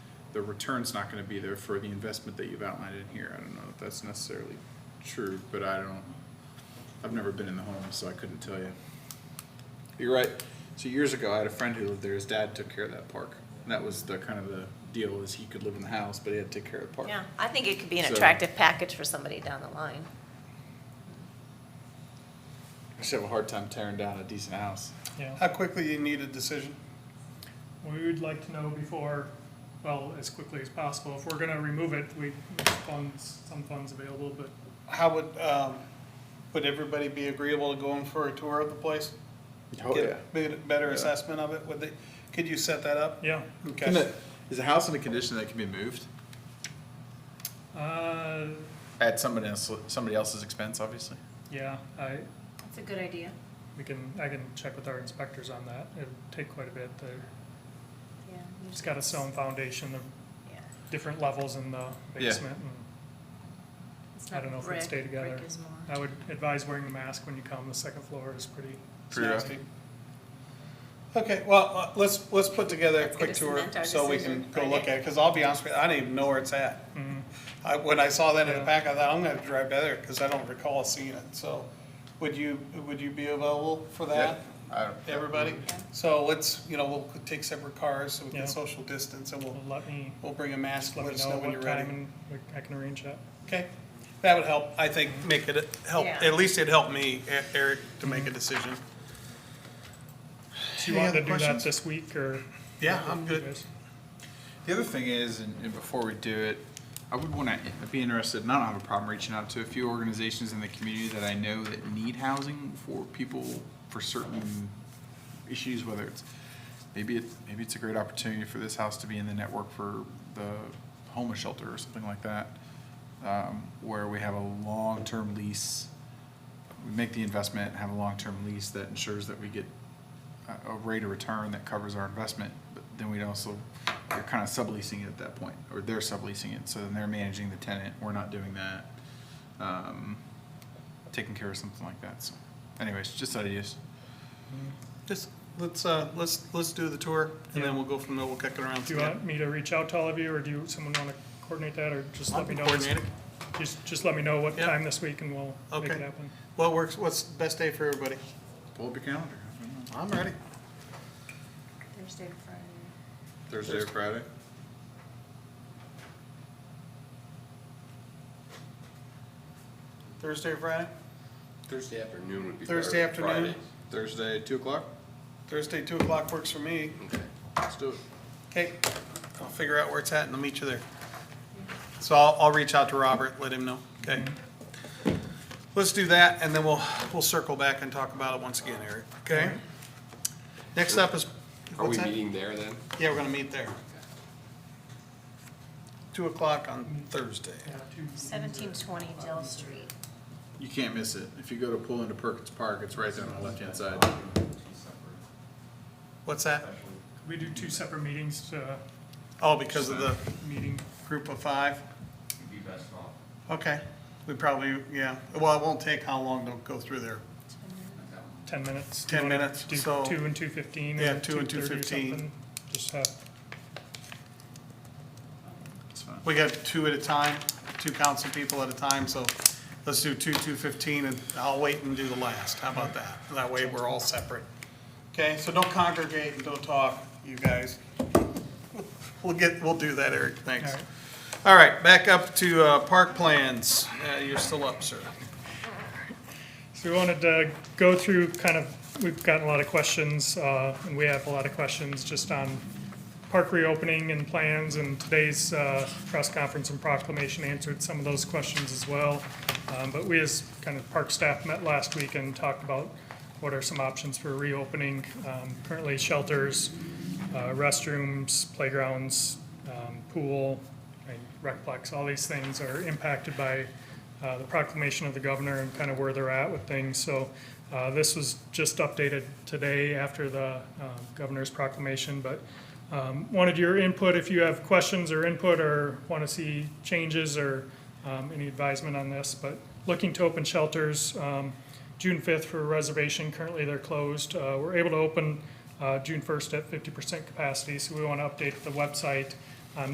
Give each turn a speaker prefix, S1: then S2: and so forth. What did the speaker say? S1: the return's not gonna be there for the investment that you've outlined in here. I don't know if that's necessarily true, but I don't, I've never been in the home, so I couldn't tell you. You're right. So years ago, I had a friend who lived there. His dad took care of that park. And that was the kind of the deal is he could live in the house, but he had to take care of the park.
S2: Yeah, I think it could be an
S1: So-
S2: attractive package for somebody down the line.
S1: I should have a hard time tearing down a decent house.
S3: Yeah,
S4: How quickly you need a decision?
S3: we would like to know before, well, as quickly as possible. If we're gonna remove it, we, funds, some funds available, but
S4: How would, um, would everybody be agreeable to going for a tour of the place? Get a bit- Better
S1: Oh, Yeah.
S4: assessment of it, would they, could you set that up?
S3: yeah.
S1: Can
S4: Okay.
S1: it, is a house in a condition that can be moved
S3: Uh,
S1: at somebody else, somebody else's expense, obviously?
S3: yeah, I,
S2: That's a good idea.
S3: we can, I can check with our inspectors on that. It'll take quite a bit. They're-
S2: Yeah.
S3: It's got a stone foundation, the
S2: Yeah,
S3: different levels in the basement. and
S2: it's
S3: I
S2: not
S3: don't know if it'd
S2: brick.
S3: stay together.
S2: Brick is more-
S3: I would advise wearing the mask when you come. The second floor is pretty,
S1: Pretty rough.
S4: Nasty. Okay, well, uh, let's, let's put together a
S2: Let's get
S4: quick
S2: to
S4: tour
S2: cement our
S4: so we can
S2: decision
S4: go look
S2: Friday.
S4: at it, because I'll be honest with you, I don't even know where it's at.
S3: mm,
S4: I, when I saw that in the
S3: Yeah.
S4: pack, I thought, I'm gonna drive by there, because I don't recall seeing it, so. Would you, would you be available for that?
S1: I don't-
S4: everybody.
S2: Yeah.
S4: So let's, you know, we'll take separate cars so we
S3: Yeah.
S4: can social distance and
S3: well,
S4: we'll,
S3: let me,
S4: we'll bring a mask,
S3: let
S4: let
S3: me
S4: us
S3: know
S4: know when
S3: what
S4: you're
S3: time
S4: ready.
S3: and we- I can arrange that.
S4: Okay, that would help, I think, make it, help,
S2: Yeah.
S4: at least it helped me, E- Eric, to make
S3: Mm-hmm.
S4: a decision.
S3: Do you
S1: Any
S3: want to
S1: other
S3: do that
S1: questions?
S3: this week or?
S4: Yeah, I'm
S3: You
S4: good.
S3: guys?
S1: The other thing is, and, and before we do it, I would want to be interested, and I don't have a problem reaching out to a few organizations in the community that I know that need housing for people for certain issues, whether it's, maybe it, maybe it's a great opportunity for this house to be in the network for the homeless shelter or something like that, um, where we have a long-term lease we make the investment, have a long-term lease that ensures that we get a- a rate of return that covers our investment, but then we'd also, you're kind of subleasing it at that point, or they're subleasing it, so then they're managing the tenant, we're not doing that. Um, Taking care of something like that, so anyways, just ideas.
S4: Just, let's, uh, let's, let's do the tour and then
S3: Yeah.
S4: we'll go from there, we'll kick it around.
S3: Do you want me to reach out to all of you, or do you, someone want to coordinate that, or just
S4: I'll
S3: let me know? this-
S4: coordinate it.
S3: Just, just let me know what
S4: Yeah.
S3: time this week and we'll make it
S4: Okay.
S3: happen.
S4: What works, what's the best day for everybody?
S1: Pull up your calendar. I don't know.
S4: I'm ready.
S2: Thursday or Friday.
S1: Thursday or Friday?
S4: Thursday or Friday?
S5: Thursday afternoon would be better.
S4: Thursday afternoon?
S5: Friday.
S1: Thursday, two o'clock?
S4: Thursday, two o'clock works for me.
S5: Okay.
S1: Let's do it.
S4: Okay, I'll figure out where it's at and I'll meet you there. So I'll, I'll reach out to Robert, let him know, okay? Let's do that, and then we'll, we'll circle back and talk about it once again, Eric, okay? Next up is,
S5: Are we
S4: what's that?
S5: meeting there then?
S4: Yeah, we're gonna meet there. Two o'clock on Thursday.
S2: Seventeen twenty Dell Street.
S1: You can't miss it. If you go to pull into Perkins Park, it's right there on the left-hand side.
S4: What's that?
S3: We do two separate meetings, uh,
S4: Oh, because of the
S3: meeting,
S4: group of five?
S6: be best off.
S4: Okay, we probably, yeah, well, it won't take how long to go through there.
S3: ten minutes. Do you
S4: 10
S3: wanna
S4: minutes,
S3: do
S4: so-
S3: Two and two fifteen,
S4: Yeah,
S3: or
S4: two
S3: two
S4: and
S3: thirty or
S4: 2:15.
S3: something, just have,
S1: It's fine.
S4: We got two at a time, two council people at a time, so let's do two, two fifteen, and I'll wait and do the last. How about that? That way we're all separate. Okay, so don't congregate and don't talk, you guys. We'll get, we'll do that, Eric, thanks.
S3: All right.
S4: All right, back up to, uh, park plans. Uh, you're still up, sir.
S3: So we wanted to go through kind of, we've gotten a lot of questions, uh, and we have a lot of questions just on park reopening and plans, and today's, uh, press conference and proclamation answered some of those questions as well. Um, but we as kind of park staff met last week and talked about what are some options for reopening. Um, currently shelters, uh, restrooms, playgrounds, um, pool, and recplex, all these things are impacted by uh, the proclamation of the governor and kind of where they're at with things. So uh, this was just updated today after the um, governor's proclamation, but um, wanted your input if you have questions or input or want to see changes or um, any advisement on this. But looking to open shelters, um, June 5th for reservation, currently they're closed. Uh, We're able to open uh, June 1st at 50% capacity, so we want to update the website